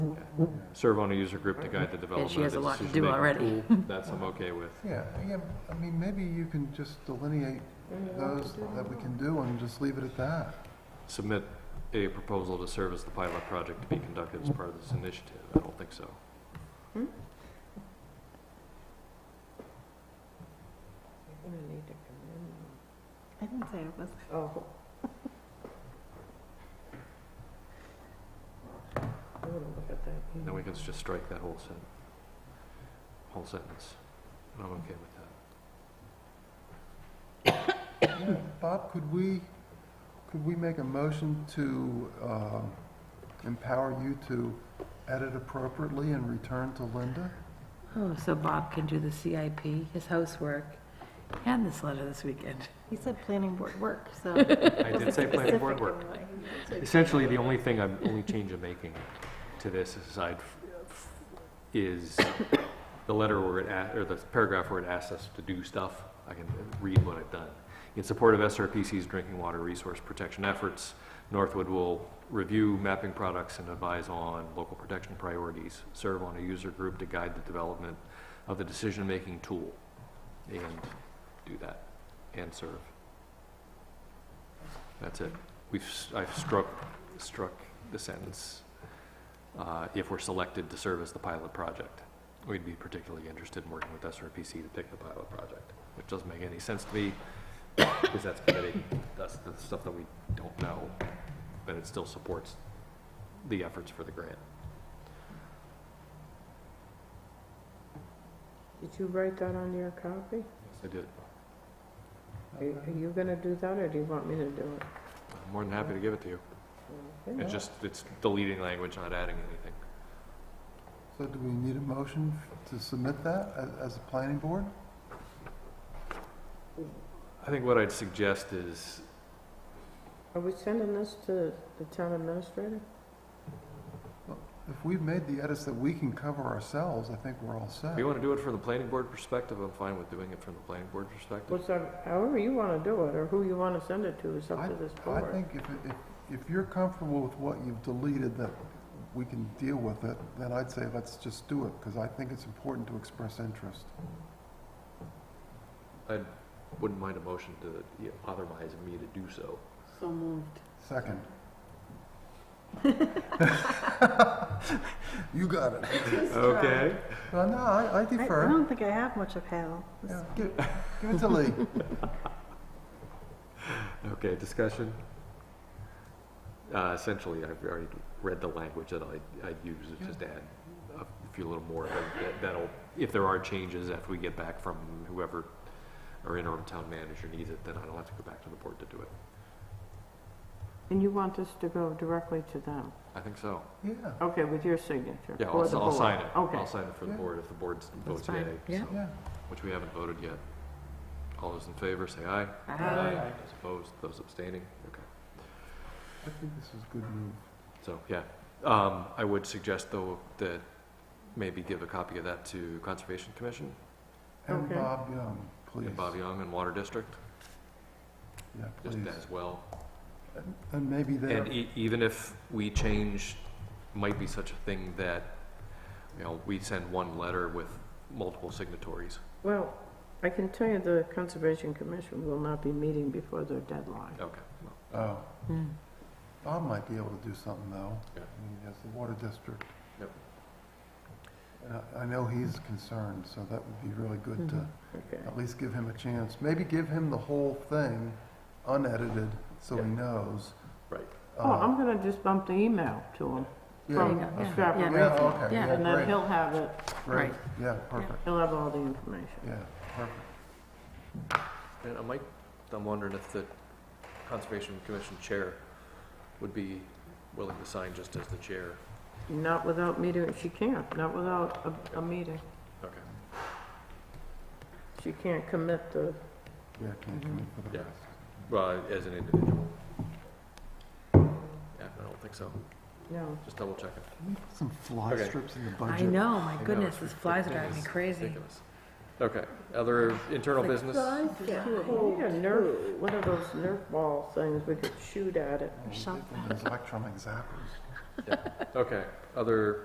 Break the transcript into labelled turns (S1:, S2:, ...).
S1: serve on a user group to guide the
S2: And
S1: development.
S2: she has a
S1: of the
S2: lot to do
S1: decision-making.
S2: already.
S1: That's I'm okay with.
S3: Yeah, yeah, I mean, maybe you can just delineate those that we can do and just leave it at that.
S1: Submit a proposal to serve as the pilot project to be conducted as part of this initiative. I don't think so.
S4: I didn't say it was.
S5: Oh. I'm gonna look at that.
S1: Then we can just strike that whole sentence, whole sentence. And I'm okay with that.
S3: Yeah, Bob, could we, could we make a motion to um, empower you to edit appropriately and return to Linda?
S2: Oh, so Bob can do the CIP, his housework, and this letter this weekend.
S4: He said planning board work, so.
S1: I did say planning board work. Essentially, the only thing I'm, only change I'm making to this aside f- f- is the letter where it, a- or the paragraph where it asks us to do stuff. I can read what I've done. In support of SRPC's drinking water resource protection efforts, Northwood will review mapping products and advise on local protection priorities, serve on a user group to guide the development of the decision-making tool, and do that, and serve. That's it. We've, s- I've struck, struck the sentence, uh, if we're selected to serve as the pilot project. We'd be particularly interested in working with SRPC to pick the pilot project, which doesn't make any sense to me, because that's committing, that's the stuff that we don't know, but it still supports the efforts for the grant.
S5: Did you write that on your copy?
S1: I did,
S5: Are are you gonna do that, or do you want me to do it?
S1: I'm more than happy to give it to you.
S5: Okay.
S1: It's just, it's deleting language, not adding anything.
S3: So do we need a motion to submit that a- as a planning board?
S1: I think what I'd suggest is,
S5: Are we sending this to the town administrator?
S3: If we've made the edits that we can cover ourselves, I think we're all set.
S1: If you want to do it from the planning board perspective, I'm fine with doing it from the planning board perspective.
S5: What's that, however you wanna do it, or who you wanna send it to is up
S3: I-
S5: to this
S3: I
S5: board.
S3: think if, it- if, if you're comfortable with what you've deleted, that we can deal with it, then I'd say let's just do it, because I think it's important to express interest.
S1: I wouldn't mind a motion to yeah, authorize me to do so.
S4: So moved.
S3: Second. You got it. Uh,
S1: Okay.
S3: No, no, I I
S4: I I
S3: defer.
S4: don't think I have much of Hal.
S3: Yeah, Give give it to Lee.
S1: Okay, discussion? Uh, Essentially, I've already read the language that I, I'd use, it's just add a few little more, of it that- that'll, if there are changes after we get back from whoever our interim town manager needs it, then I don't have to go back to the board to do it.
S5: And you want this to go directly to them?
S1: I think so.
S3: Yeah,
S5: Okay, with your signature?
S1: Yeah,
S5: or
S1: I'll,
S5: the
S1: I'll
S5: board.
S1: sign it.
S5: Okay.
S1: I'll sign it for the
S3: Yeah.
S1: board if the board votes
S2: fine,
S1: yay,
S2: yeah.
S1: so.
S3: yeah.
S1: which we haven't voted yet. All those in favor, say aye.
S2: Aye.
S1: Those opposed, those abstaining, okay.
S3: I think this is a good move.
S1: So, yeah. Um, I would suggest though that maybe give a copy of that to Conservation Commission
S3: And
S5: Okay.
S3: Bob Young, please.
S1: and Bob Young and Water District,
S3: Yeah,
S1: just
S3: please.
S1: as well.
S3: And maybe there,
S1: And e- even if we change, might be such a thing that, you know, we send one letter with multiple signatories.
S5: Well, I can tell you the Conservation Commission will not be meeting before their deadline.
S1: Okay. well,
S3: oh,
S2: Hmm.
S3: Bob might be able to do something though.
S1: Yeah.
S3: I mean, He has the water district.
S1: Yep.
S3: And I- I know he's concerned, so that would be really good to
S2: Mhm.
S5: Okay.
S3: at least give him a chance. Maybe give him the whole thing unedited, so he
S1: Yeah.
S3: knows.
S1: Right.
S5: Oh,
S3: Uh,
S5: I'm gonna just bump the email to him.
S3: yeah.
S5: from
S2: There you go,
S5: a
S2: yeah,
S5: scrap
S2: yeah.
S5: of
S3: Yeah,
S5: record,
S3: okay,
S2: Yeah.
S3: yeah,
S5: And then
S3: great,
S5: he'll have it,
S3: great,
S2: Right.
S3: yeah, perfect,
S5: he'll have all the information.
S3: yeah, perfect.
S1: And I might, I'm wondering if the Conservation Commission Chair would be willing to sign just as the chair.
S5: Not without meeting, she can't, not without a, a meeting.
S1: Okay.
S5: She can't commit the,
S3: Yeah, can't commit for the
S1: Yeah.
S3: rest.
S1: Well, as an individual. Yeah, I don't think so.
S5: no.
S1: Just double checking.
S3: Can we put some fly
S1: Okay.
S3: strips in the
S2: I
S3: budget?
S2: know, my
S1: know,
S2: goodness,
S1: it's
S2: these flies are driving me
S1: ridiculous.
S2: crazy.
S1: Ridiculous. Okay, other internal business?
S4: Yeah.
S5: We need a Nerf, one of those Nerf ball things, we could shoot at it.
S3: Those electronic zappers.
S1: Okay, other